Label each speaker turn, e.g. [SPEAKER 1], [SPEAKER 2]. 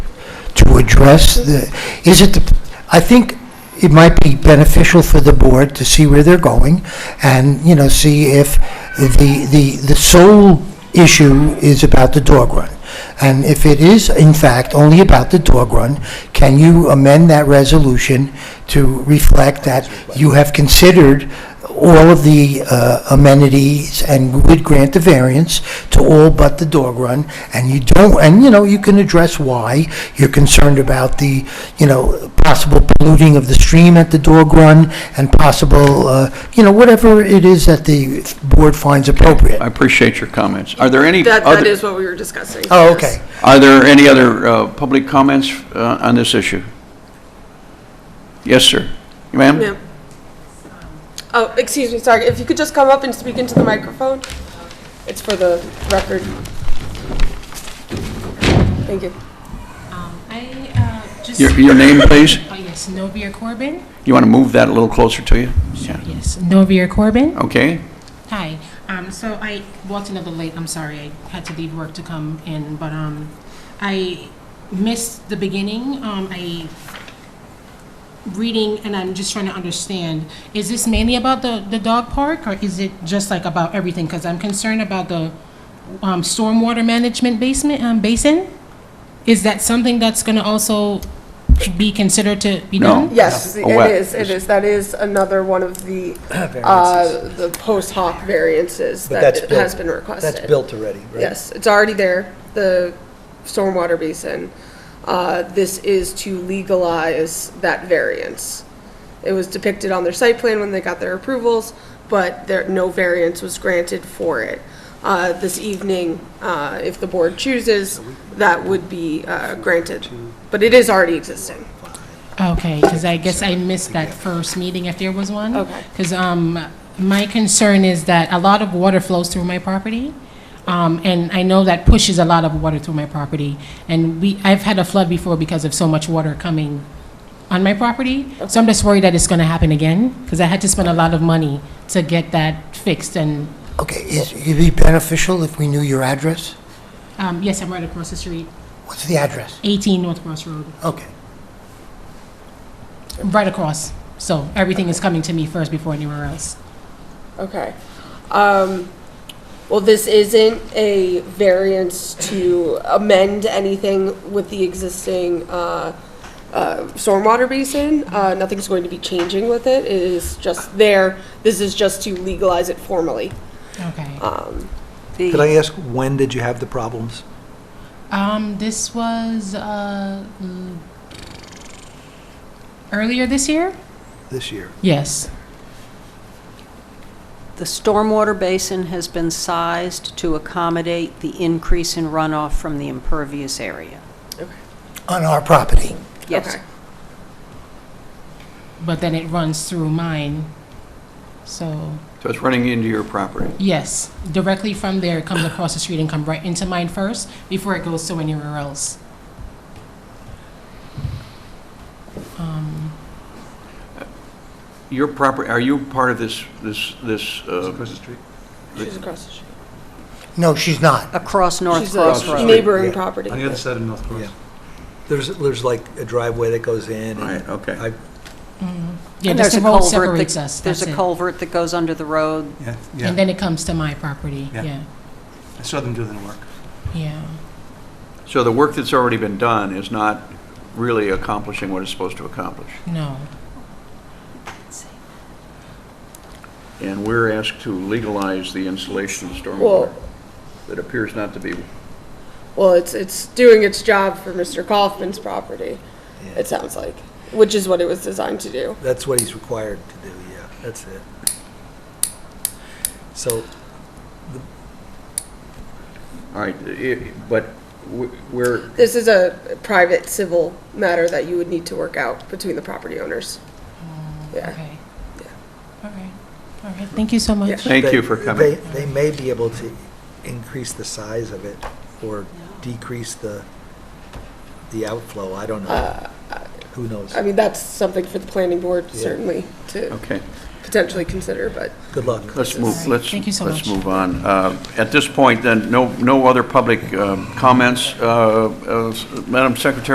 [SPEAKER 1] address the, is it, the- I think it might be beneficial for the board to see where they're going and, you know, see if the, the, the sole issue is about the dog run. And if it is, in fact, only about the dog run, can you amend that resolution to reflect that you have considered all of the uh, amenities and would grant the variance to all but the dog run, and you don't, and, you know, you can address why. You're concerned about the, you know, possible polluting of the stream at the dog run and possible, uh, you know, whatever it is that the board finds appropriate.
[SPEAKER 2] I appreciate your comments. Are there any?
[SPEAKER 3] That, that
[SPEAKER 2] other-
[SPEAKER 3] is what we were discussing.
[SPEAKER 1] Oh,
[SPEAKER 3] yes.
[SPEAKER 1] okay.
[SPEAKER 2] Are there any other uh, public comments uh, on this issue? Yes, sir. Ma'am?
[SPEAKER 3] Ma'am. Oh, excuse me, sorry, if you could just come up and speak into the microphone? It's for the record. Thank you.
[SPEAKER 4] Um, I uh, just.
[SPEAKER 2] Your your name, please?
[SPEAKER 4] Oh, yes, Novia Corbin.
[SPEAKER 2] You want to move that a little closer to you? Yeah.
[SPEAKER 4] Yes, Novia Corbin.
[SPEAKER 2] Okay.
[SPEAKER 4] Hi. Um, so I walked in a little late. I'm sorry. I had to leave work to come in, but um, I missed the beginning. Um, I reading and I'm just trying to understand. Is this mainly about the the dog park, or is it just like about everything? Because I'm concerned about the um, stormwater management basement um, basin. Is that something that's going to also be considered to be
[SPEAKER 2] No.
[SPEAKER 4] done?
[SPEAKER 3] Yes, it
[SPEAKER 2] Oh, wow.
[SPEAKER 3] is, it is, that is another one of the, uh, the post hoc variances
[SPEAKER 5] But that's
[SPEAKER 3] that
[SPEAKER 5] built-
[SPEAKER 3] has been requested.
[SPEAKER 5] That's built already, right?
[SPEAKER 3] Yes, it's already there, the stormwater basin. Uh, This is to legalize that variance. It was depicted on their site plan when they got their approvals, but there, no variance was granted for it. Uh, This evening, uh, if the board chooses, that would be uh, granted, but it is already existing.
[SPEAKER 4] Okay, because I guess I missed that first meeting if there was one.
[SPEAKER 3] Okay.
[SPEAKER 4] Because my concern is that a lot of water flows through my property, um, and I know that pushes a lot of water through my property. And we, I've had a flood before because of so much water coming on my property. So I'm just worried that it's going to happen again, because I had to spend a lot of money to get that fixed. And,
[SPEAKER 1] Okay, is, it'd be beneficial if we knew your address?
[SPEAKER 4] um, yes, I'm right across the street,
[SPEAKER 1] What's the address?
[SPEAKER 4] 18 North Cross Road,
[SPEAKER 1] Okay.
[SPEAKER 4] right across. So everything is coming to me first before anywhere else.
[SPEAKER 3] Okay. Um, Well, this isn't a variance to amend anything with the existing uh, uh, stormwater basin. Uh, Nothing's going to be changing with it. It is just there. This is just to legalize it formally.
[SPEAKER 4] Okay.
[SPEAKER 5] Could I ask, when did you have the problems?
[SPEAKER 4] Um, this was uh, mm, earlier this year.
[SPEAKER 5] This year?
[SPEAKER 4] Yes.
[SPEAKER 6] The stormwater basin has been sized to accommodate the increase in runoff from the impervious area.
[SPEAKER 1] On our property.
[SPEAKER 6] Yes.
[SPEAKER 3] Okay.
[SPEAKER 4] But then it runs through mine. So
[SPEAKER 2] So it's running into your property.
[SPEAKER 4] yes, directly from there it comes across the street and come right into mine first before it goes to anywhere else.
[SPEAKER 2] Your property, are you part of this, this, this? uh,
[SPEAKER 3] She's across the street.
[SPEAKER 1] No, she's not.
[SPEAKER 6] Across North
[SPEAKER 3] She's
[SPEAKER 6] Cross
[SPEAKER 3] a
[SPEAKER 6] Road.
[SPEAKER 3] neighboring
[SPEAKER 5] Yeah.
[SPEAKER 3] property.
[SPEAKER 7] On the other side of North Cross.
[SPEAKER 5] Yeah. There's, there's like a driveway that goes in. and
[SPEAKER 2] Right, okay.
[SPEAKER 5] I-
[SPEAKER 4] Yeah,
[SPEAKER 6] And
[SPEAKER 4] just
[SPEAKER 6] there's
[SPEAKER 4] the
[SPEAKER 6] a
[SPEAKER 4] road
[SPEAKER 6] culvert that-
[SPEAKER 4] separates us.
[SPEAKER 6] There's
[SPEAKER 4] that's
[SPEAKER 6] a
[SPEAKER 4] it.
[SPEAKER 6] culvert that goes under the road.
[SPEAKER 7] Yeah,
[SPEAKER 4] And
[SPEAKER 7] yeah.
[SPEAKER 4] then it comes to my property.
[SPEAKER 7] Yeah.
[SPEAKER 4] Yeah.
[SPEAKER 7] I saw them do the work.
[SPEAKER 4] Yeah.
[SPEAKER 2] So the work that's already been done is not really accomplishing what it's supposed to accomplish?
[SPEAKER 4] No.
[SPEAKER 2] And we're asked to legalize the installation of stormwater
[SPEAKER 3] Well-
[SPEAKER 2] that appears not to be,
[SPEAKER 3] Well, it's, it's doing its job for Mr. Kaufman's property, it sounds like, which is what it was designed to do.
[SPEAKER 5] That's what he's required to do, yeah, that's it. So,
[SPEAKER 2] all right, i- but w- we're,
[SPEAKER 3] This is a private civil matter that you would need to work out between the property owners. Yeah.
[SPEAKER 4] Okay. All right. All right. Thank you so much.
[SPEAKER 3] Yeah.
[SPEAKER 2] thank you
[SPEAKER 5] they-
[SPEAKER 2] for
[SPEAKER 5] They,
[SPEAKER 2] coming.
[SPEAKER 5] they may be able to increase the size of it or decrease the, the outflow, I don't
[SPEAKER 2] Uh,
[SPEAKER 5] know. Who knows?
[SPEAKER 3] I mean, that's something for the planning board certainly to
[SPEAKER 2] Okay,
[SPEAKER 3] potentially consider, but
[SPEAKER 5] Good luck.
[SPEAKER 2] let's move, let's,
[SPEAKER 4] Thank you so
[SPEAKER 2] let's
[SPEAKER 4] much.
[SPEAKER 2] move on. Uh, At this point, then, no, no other public um, comments. Uh, uh, Madam Secretary,